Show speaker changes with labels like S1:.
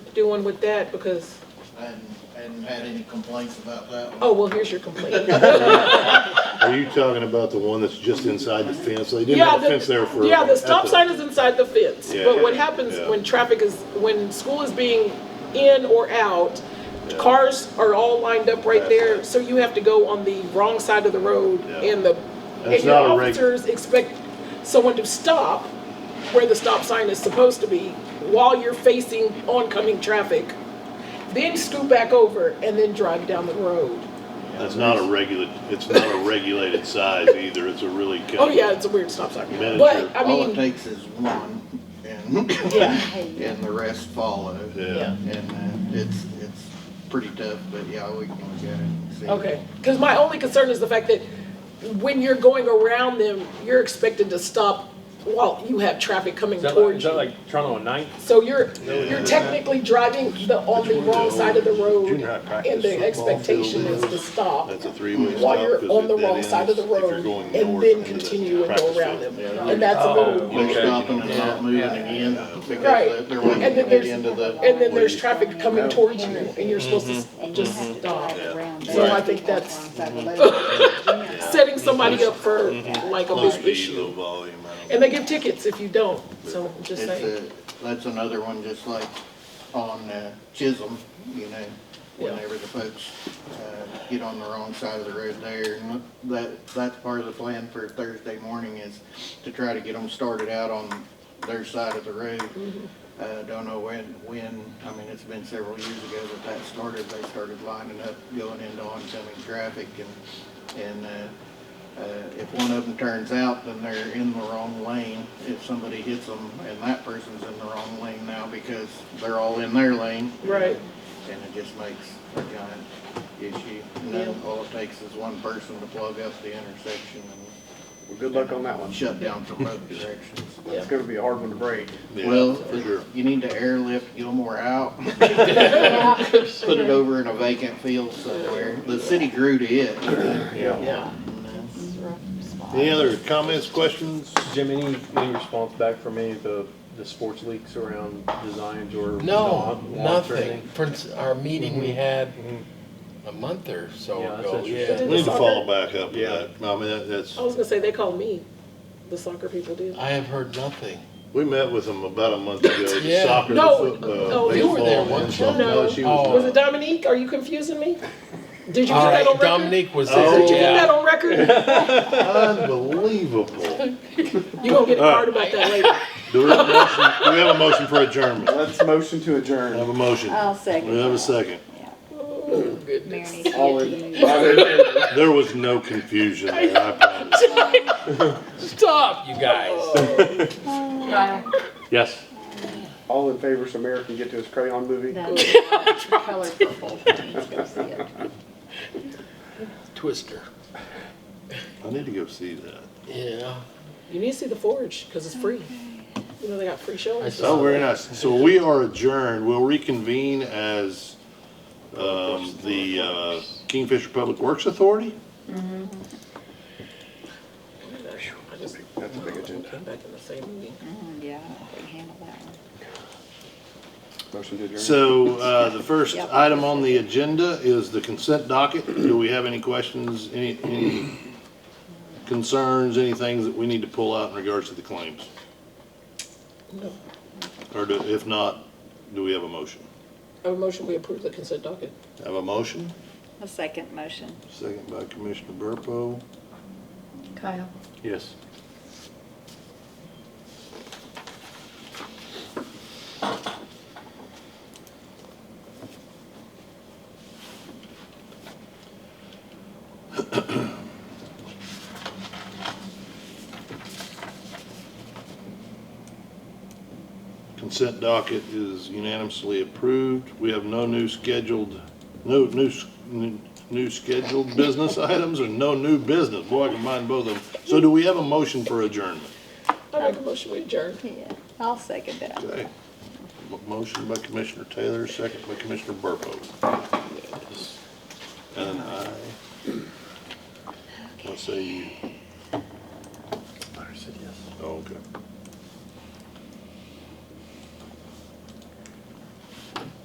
S1: doing with that? Because,
S2: I hadn't, hadn't had any complaints about that one.
S1: oh, well, here's your complaint.
S3: Are you talking about the one that's just inside the fence? They didn't
S1: Yeah,
S3: have a
S1: the
S3: fence there for.
S1: Yeah, the
S3: at
S1: stop sign is inside the fence,
S3: Yeah.
S1: but what happens
S3: Yeah.
S1: when traffic is, when school is being in or out, cars are all lined up right
S3: That's
S1: there,
S3: right.
S1: so you have to go on the wrong side of the road
S3: Yeah.
S1: and the, and
S3: That's
S1: your
S3: not a reg-
S1: officers expect someone to stop where the stop sign is supposed to be while you're facing oncoming traffic, then scoot back over and then drive down the road.
S3: It's not a regular, it's not a regulated size either. It's a really. kind
S1: Oh
S3: of-
S1: yeah, it's a weird stop sign,
S3: Miniature.
S1: but I
S2: All it
S1: mean,
S2: takes is one, and,
S1: yeah,
S2: and the rest follow.
S3: Yeah.
S2: And uh, it's, it's pretty tough, but yeah, we can look at it and see.
S1: Okay, because my only concern is the fact that when you're going around them, you're expected to stop while you have traffic coming
S4: Is that like,
S1: towards
S4: is that
S1: you.
S4: like Toronto on Ninth?
S1: So you're, you're technically driving the, on the wrong side of the road,
S3: Junior high practice
S1: and the
S3: football
S1: expectation
S3: field
S1: is to stop
S3: That's a three-way stop.
S1: while you're
S3: 'cause
S1: on
S3: it-
S1: the
S3: that
S1: wrong side of
S3: ends
S1: the
S3: if you're
S1: road,
S3: going
S1: and
S3: north
S1: then
S3: into the
S1: continue and
S3: practice
S1: go around
S3: field.
S1: them.
S2: Yeah.
S1: And that's a little,
S2: You're
S4: Okay.
S2: stopping and not moving again,
S1: Right.
S2: because they're waiting
S1: And
S2: to
S1: then
S2: get
S1: there's-
S2: into the,
S3: Oh.
S1: and then there's traffic coming towards you, and you're supposed to s-
S3: Mm-hmm.
S1: just stop. Mm-hmm. So I think that's setting somebody up for like a
S3: Mm-hmm. Low
S1: big
S3: speed,
S1: issue.
S3: low volume. I don't-
S1: And they give tickets if you don't, so just
S2: it's
S1: saying.
S2: a, that's another one, just like on uh, Chisholm, you know,
S1: Yeah.
S2: whenever the folks uh, get on the wrong side of the road there. And that, that's part of the plan for Thursday morning is to try to get them started out on their side of the
S1: Mm-hmm.
S2: road. Uh, don't know when, when, I mean, it's been several years ago that that started. They started lining up, going into oncoming traffic and, and, uh, uh, if one of them turns out, then they're in the wrong lane. If somebody hits them and that person's in the wrong lane now because they're all in their lane.
S1: Right.
S2: And it just makes a giant issue. And then
S1: Yeah.
S2: all it takes is one person to plug up the intersection
S5: Well, good luck on that one.
S2: and shut down from both directions.
S5: It's gonna be a hard one to break.
S3: Yeah,
S2: Well,
S3: for sure.
S2: you need to airlift Gilmore out. Put it over in a vacant field somewhere. The city grew to it.
S1: Yeah.
S3: Any other comments, questions?
S4: Jim, any, any response back from any of the, the sports leaks around designs or?
S6: No,
S4: lawn- lawns or
S6: nothing.
S4: anything?
S6: For ins- our meeting we had a month or so
S4: Mm-hmm. Yeah, that's
S6: ago,
S4: interesting.
S6: yeah.
S3: We need to follow back up with
S4: Yeah.
S3: that. I mean, that- that's,
S1: I was gonna say, they called me, the soccer people did.
S6: I have heard nothing.
S3: we met with them about a month ago, the
S6: Yeah.
S3: soccer, the
S1: No,
S3: football,
S1: no, you were
S3: baseball,
S6: there,
S3: and
S6: weren't you?
S3: something. No,
S1: No.
S3: she
S6: Oh.
S1: Was
S3: was
S1: it Dominique? Are you confusing me? Did you
S6: All
S1: get that
S6: right,
S1: on record?
S6: Dominique was
S3: Oh,
S6: there,
S1: Did you get that
S6: yeah.
S1: on record?
S3: not. Unbelievable.
S1: You gonna get a card about that later.
S3: Do we have a motion, do we have a motion for adjournment?
S5: Let's motion to
S3: I
S5: adjourn.
S3: have a motion.
S7: I'll second
S1: Mm-hmm.
S3: We have a
S7: that.
S3: second.
S1: Oh, goodness.
S5: All in, all in favor?
S3: There was no confusion there, I promise.
S6: Stop, you guys.
S4: Yes.
S5: all in favor so Mayor can get to his crayon movie?
S7: Color purple. Go see it.
S6: Twister.
S3: I need to go see that.
S6: Yeah.
S1: You need to see the Forge, cause it's free. You know, they got free shows.
S3: Oh, very nice. So we are adjourned. We'll reconvene as, um, the, uh, Kingfisher Public Works Authority?
S1: I just
S5: That's a big agenda.
S1: came back in the same meeting.
S7: Mm, Yeah, I don't know if we can handle that one.
S5: Motion to adjourn.
S3: So, uh, the first
S7: Yep.
S3: item on the agenda is the consent docket. Do we have any questions, any, any concerns, any things that we need to pull out in regards to the claims?
S1: No.
S3: Or do, if not, do we have a motion?
S1: I have a motion, we approve the consent docket.
S3: Have a motion?
S7: A second motion.
S3: Second by Commissioner Burpo.
S7: Kyle?
S4: Yes.
S3: Consent docket is unanimously approved. We have no new scheduled, no new, s- n- new scheduled business items or no new business. Boy, I combined both of them. So do we have a motion for adjournment?
S1: I make a motion, we adjourn.
S7: Yeah, I'll second that.
S3: Okay. M- Motion by Commissioner Taylor, second by Commissioner Burpo. And I, let's say you,
S4: I said yes.
S3: oh, okay.